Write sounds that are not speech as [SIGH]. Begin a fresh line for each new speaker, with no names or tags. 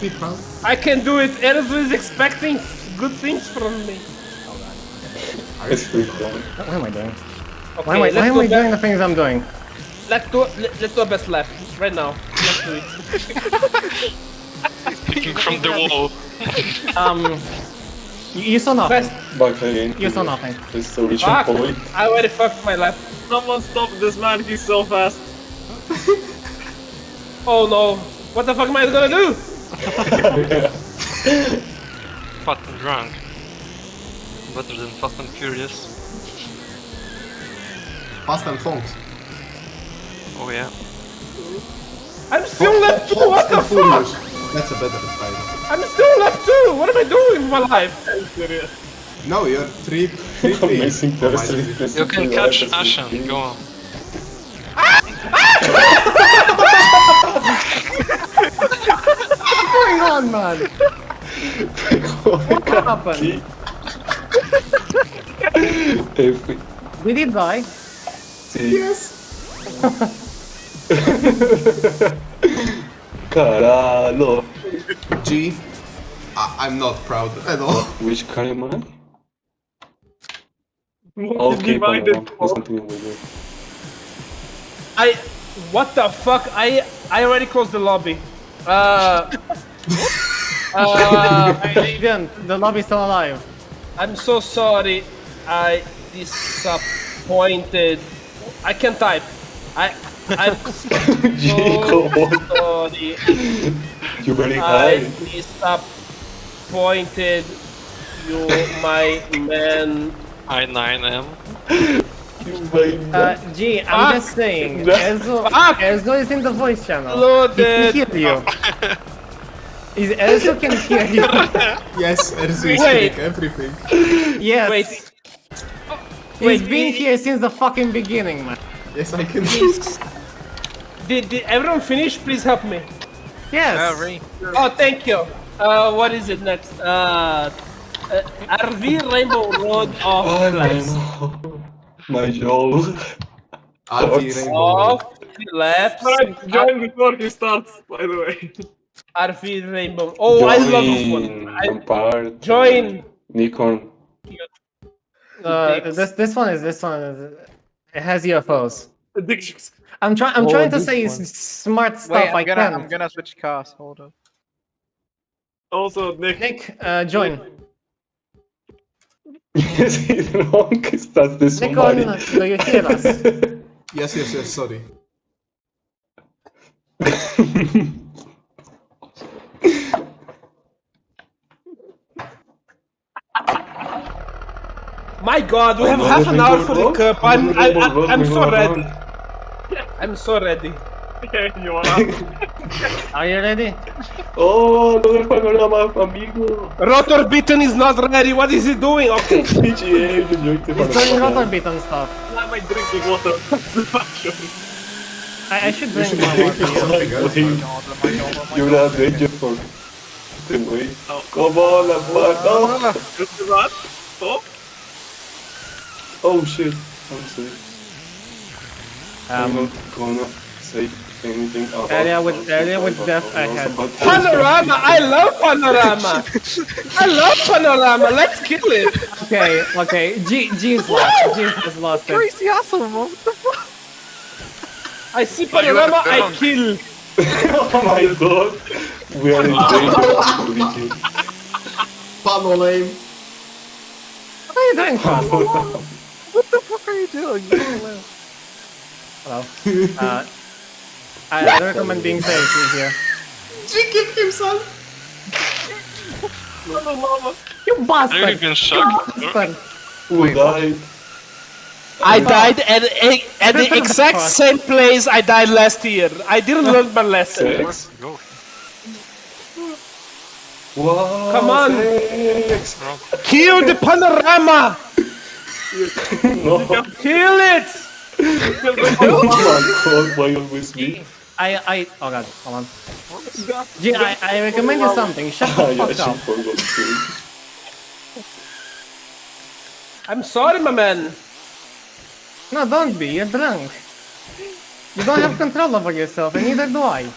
people.
I can do it. Erzu is expecting good things from me.
It's pretty cool.
What am I doing?
Okay,
Why am I,
let's
why am
do
I
that-
doing the things I'm doing?
Let's do let, let's do a best lap right now. Let's do it.
Picking from the wall.
Um,
You, you saw nothing.
[LAUGHS] best.
Back again.
You saw nothing.
It's the reaching
Fuck.
point.
I already fucked my lap.
Someone stop this man, he's so fast.
[LAUGHS] Oh no! What the fuck am I gonna do?
Fast and drunk. Better than fast and furious.
Fast and Fonks.
Oh yeah.
I'm still lap two. What the fuck?
That's a better title.
I'm still lap two. What am I doing with my life?
No, you're three,
[LAUGHS]
three, Oh three.
Amazing person.
You can catch Ashen, go on.
Hang on, man. What happened?
If we
Did he die?
see. Yes. Caralho.
G. I- I'm not proud
[LAUGHS]
at all.
Which car am I? Okay, Panorama. There's nothing over there.
I. What the fuck? I I already closed the lobby.
[LAUGHS]
Uh. uh
No, you didn't. The lobby's still alive.
I'm so sorry. I disappointed. I can type. I. I'm so
Jacob,
sorry.
you very
I
high.
disappointed you, my man.
I9M.
You very
Uh, gee, I'm
Ah,
just saying. Ezo,
Fuck.
Ezo is in the voice channel. He
Loaded.
can hear you. Is Ezo can hear you.
Yes, Erzu is
Wait.
doing everything.
Yes.
Wait.
He's
wait,
been
he-
here since the fucking beginning, man.
Yes, I can.
Did, did everyone finish? Please help me.
Yes.
Oh, thank you. Uh, what is it next? Uh, uh, RV Rainbow Road
Oh,
of,
Panorama. My jaw.
RV
Oh,
Rainbow.
of laps.
Alright, join before he starts, by the way.
RV Rainbow. Oh, I love this one.
Join,
I
Lampard,
join.
Nikon.
Uh, this this one is this one. Is, it has UFOs.
Addictions.
I'm trying. I'm
Oh,
trying to
this
say
one.
s smart stuff.
Wait, I'm
I
gonna,
can.
I'm gonna switch cars. Hold on.
Also, Nick.
Nick, uh, join.
Yes, he's wrong. That's the
Nikon,
somebody.
do you hear us?
Yes, yes, yes, sorry.
My God, we have half an hour for the cup. I'm I, I, I'm so ready. I'm so ready.
Yeah, you are up.
Are you ready?
Oh, another panorama, amigo.
Rotor Beaton is not ready. What is he
[LAUGHS]
doing? Okay.
PGA, you joined the
He's doing rotor
panorama.
beat and stuff.
Why am I drinking water? [LAUGHS] Fuck
I, I should drink one more.
You're not ready for the way. Come on, I'm no.
you. Just run. Stop.
Oh shit, I'm safe.
Ah,
I'm not gonna say anything about
Earlier with- earlier with death, I had-
Panorama. I love Panorama. I love Panorama. Let's kill it.
Okay, okay. G G is lost. G has lost it.
Crazy asshole, man.
I see Panorama. I kill.
Oh [LAUGHS] my god, we are in danger of leaking.
Pano lame.
What are you doing, Cross?
[LAUGHS] What the fuck are you doing?
Hello. Uh, I I don't recommend being safe in here.
G killed himself.
You
Are you
bastard!
even shocked?
Bastard.
Who died?
I died at at the exact same place I died last year. I didn't learn my
[LAUGHS]
lesson.
Sex? Wow,
Come on.
Sex.
Kill the Panorama.
No, oh
Kill it.
[LAUGHS] my god, why always me?
I I. Oh god, hold on. G, I, I recommend you something. Shut
Oh,
I
the fuck up.
actually forgot to.
I'm sorry, my man.
No, don't be. You're drunk. You don't have control over yourself, and neither do I.